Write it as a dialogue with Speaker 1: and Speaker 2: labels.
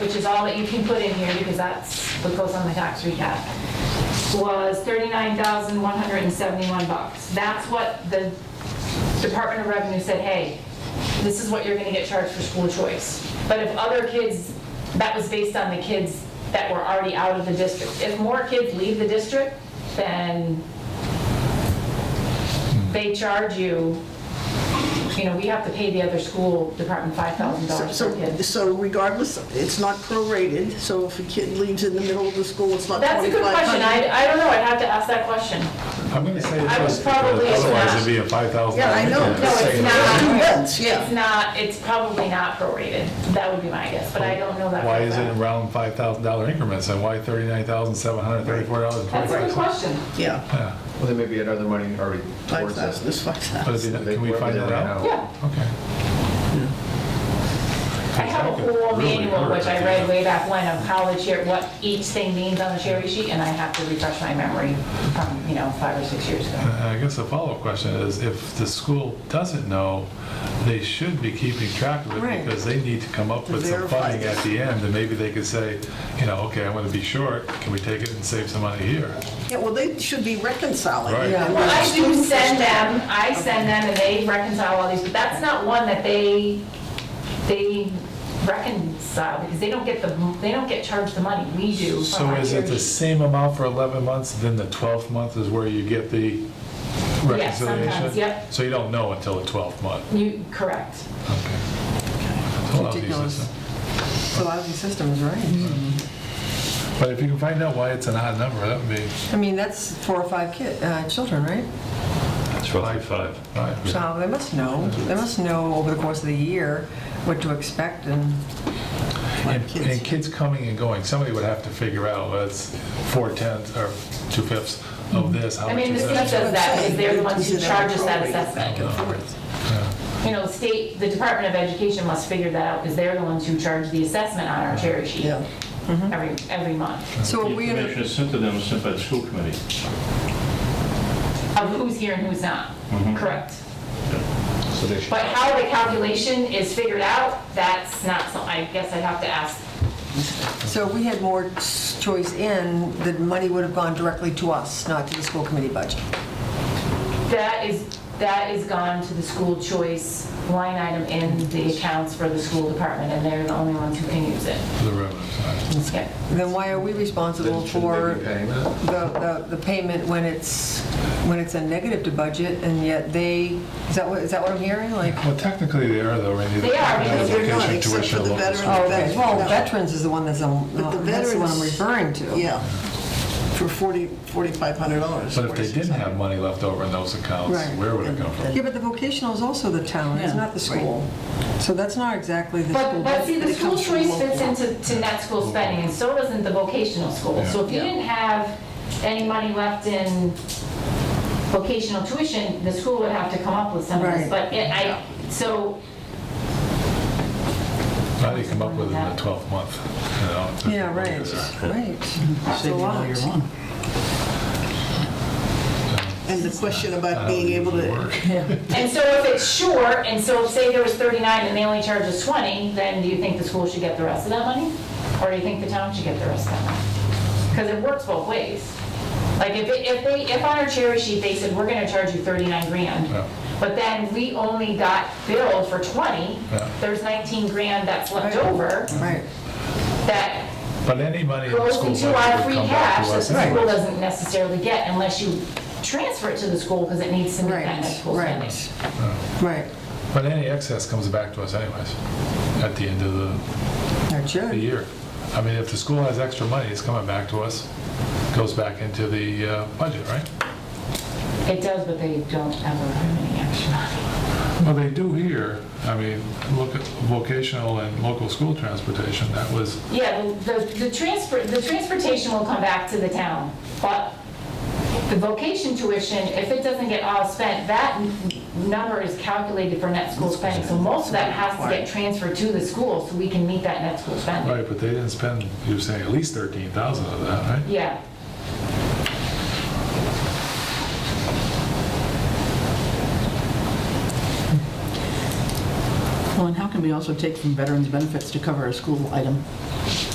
Speaker 1: is all that you can put in here because that's what goes on the tax recap, was 39,171 bucks. That's what the Department of Revenue said, hey, this is what you're gonna get charged for school choice. But if other kids, that was based on the kids that were already out of the district. If more kids leave the district, then they charge you, you know, we have to pay the other school department $5,000 per
Speaker 2: So
Speaker 1: kid.
Speaker 2: so regardless, it's not prorated, so if a kid leaves in the middle of the school, it's not
Speaker 1: That's a good question.
Speaker 2: 2,500.
Speaker 1: I, I don't know. I'd have to ask that question.
Speaker 3: I'm gonna say
Speaker 1: I
Speaker 3: yes,
Speaker 1: would probably
Speaker 3: because otherwise
Speaker 1: not.
Speaker 3: it'd be a five thousand.
Speaker 2: Yeah, I know.
Speaker 1: No, it's
Speaker 2: Two
Speaker 1: not.
Speaker 2: months,
Speaker 1: It's
Speaker 2: yeah.
Speaker 1: not, it's probably not prorated. That would be my guess, but I don't know that.
Speaker 3: Why
Speaker 1: for a
Speaker 3: is it
Speaker 1: fact.
Speaker 3: around five thousand dollar increments and why thirty-nine thousand seven hundred thirty-four dollars?
Speaker 1: That's a good question.
Speaker 2: Yeah,
Speaker 4: Well, there may be another money already towards
Speaker 2: 5,000,
Speaker 4: that.
Speaker 2: it's 5,000.
Speaker 3: Can we find that out?
Speaker 1: Yeah.
Speaker 3: Okay.
Speaker 1: I have a whole manual, which I read way back when, of how the chair, what each thing means on the cherry sheet, and I have to refresh my memory from, you know, five or six years ago.
Speaker 3: Uh, I guess the follow-up question is, if the school doesn't know, they should be keeping track of
Speaker 2: Right.
Speaker 3: it because they need to come up
Speaker 2: To
Speaker 3: with some
Speaker 2: verify
Speaker 3: funding at the end, and maybe they could say, you know, okay, I'm gonna be short, can we take it and save some money here?
Speaker 2: Yeah, well, they should be reconciling.
Speaker 3: Right. Yeah.
Speaker 1: Well, I do send them, I send them, and they reconcile all these, but that's not one that they, they reconcile, because they don't get the, they don't get charged the money, we do. from
Speaker 3: So
Speaker 1: our
Speaker 3: is it
Speaker 1: cherry
Speaker 3: the
Speaker 1: sheet.
Speaker 3: same amount for 11 months, then the 12th month is where you get the
Speaker 1: Yes,
Speaker 3: reconciliation?
Speaker 1: sometimes, yep.
Speaker 3: So you don't know until the 12th month?
Speaker 1: You, correct.
Speaker 3: Okay. It's a lousy
Speaker 5: Ridiculous.
Speaker 3: system.
Speaker 5: It's a lousy system, is right.
Speaker 3: But if you can find out why it's an odd number, that would be
Speaker 5: I mean, that's four or five kid, uh, children, right?
Speaker 6: It's roughly five.
Speaker 3: right.
Speaker 5: So they must know, they must know over the course of the year what to expect and,
Speaker 3: And
Speaker 2: kids.
Speaker 3: and kids coming and going, somebody would have to figure out, well, it's four tenths or two fifths of this, how
Speaker 1: I
Speaker 3: much
Speaker 1: mean, the
Speaker 3: is
Speaker 1: state
Speaker 3: that? Uh,
Speaker 1: does that, because they're the
Speaker 2: Is
Speaker 1: ones who
Speaker 2: it
Speaker 1: charge us that
Speaker 2: appropriate?
Speaker 1: assessment.
Speaker 3: No.
Speaker 1: You know, state, the Department of Education must figure that out, because they're the ones who charge the assessment on our cherry sheet
Speaker 2: Yeah.
Speaker 3: Mm-hmm.
Speaker 1: every, every month,
Speaker 5: so
Speaker 6: The
Speaker 5: are we gonna-
Speaker 6: information is sent to them, sent by the school committee.
Speaker 1: of who's here and who's not,
Speaker 3: Mm-hmm.
Speaker 1: correct?
Speaker 4: So they should,
Speaker 1: But how the calculation is figured out, that's not, some- I guess I'd have to ask.
Speaker 5: so if we had more s- choice in, the money would have gone directly to us, not to the school committee budget.
Speaker 1: That is, that is gone to the school choice line item in the accounts for the school department, and they're the only ones who can use it.
Speaker 3: For the revenue side.
Speaker 1: Yeah.
Speaker 5: Then why are we responsible
Speaker 4: Then shouldn't
Speaker 5: for
Speaker 4: they be paying that?
Speaker 5: the, the the payment when it's, when it's a negative to budget and yet they, is that what, is that what I'm hearing? Like,
Speaker 3: Well, technically, they are though, Randy.
Speaker 1: They are, because
Speaker 2: they're not,
Speaker 3: Education,
Speaker 2: except
Speaker 3: tuition,
Speaker 2: for the
Speaker 3: local
Speaker 2: veteran-
Speaker 3: school.
Speaker 5: oh, okay, well,
Speaker 2: No.
Speaker 5: veterans is the one that's, um,
Speaker 2: But the
Speaker 5: that's the one I'm
Speaker 2: veterans-
Speaker 5: referring to.
Speaker 2: Yeah, for 40, $4,500.
Speaker 3: But if they didn't have money left over in those accounts,
Speaker 5: Right.
Speaker 3: where would it come from?
Speaker 5: Yeah, but the vocational is also the town, it's
Speaker 2: Yeah.
Speaker 5: not the school. So that's not exactly the
Speaker 1: But,
Speaker 5: school.
Speaker 1: but see, the
Speaker 5: budget.
Speaker 1: school choice fits into, to net school spending, and so doesn't the vocational school. So if you didn't have any money left in vocational tuition, the school would have to come up with some of this,
Speaker 5: Right.
Speaker 1: but it, I, so,
Speaker 3: How do you come up with it in the 12th month? you know, if there's
Speaker 5: Yeah,
Speaker 3: no money
Speaker 5: right,
Speaker 3: there?
Speaker 5: right. That's a lot.
Speaker 2: And the question about being able to,
Speaker 3: Work.
Speaker 1: and so if it's short, and so say there was 39 and they only charge us 20, then do you think the school should get the rest of that money? Or do you think the town should get the rest of that money? Because it works both ways. Like if, it- if they, if on our cherry sheet, they said, we're gonna charge you 39 grand,
Speaker 3: Yeah.
Speaker 1: But then we only got billed for 20.
Speaker 3: Yeah.
Speaker 1: There's 19 grand that's left
Speaker 5: Right.
Speaker 1: over
Speaker 5: Right,
Speaker 1: that
Speaker 3: But any money in the
Speaker 1: goes
Speaker 3: school
Speaker 1: into our
Speaker 3: budget
Speaker 1: free
Speaker 3: would come back
Speaker 1: cash
Speaker 3: to
Speaker 1: that the
Speaker 3: us
Speaker 1: school
Speaker 3: anyway.
Speaker 1: doesn't necessarily get unless you transfer it to the school because it needs to meet that net
Speaker 5: right,
Speaker 1: school spending.
Speaker 5: right, right.
Speaker 3: But any excess comes back to us anyways, at the end of the,
Speaker 5: That
Speaker 3: the
Speaker 5: should,
Speaker 3: year. I mean, if the school has extra money, it's coming back to us, goes back into the uh, budget, right?
Speaker 1: It does, but they don't ever have any extra money.
Speaker 3: Well, they do here, I mean, look at vocational and local school transportation, that was,
Speaker 1: Yeah, the, the- the transfer, the transportation will come back to the town, but the vocation tuition, if it doesn't get all spent, that n- number is calculated for net school spending. So most of that has to get transferred to the school so we can meet that net school spending.
Speaker 3: right, but they didn't spend, you were saying at least 13,000 of that, right?
Speaker 1: Yeah.
Speaker 7: Well, and how can we also take from veterans' benefits to cover a school item?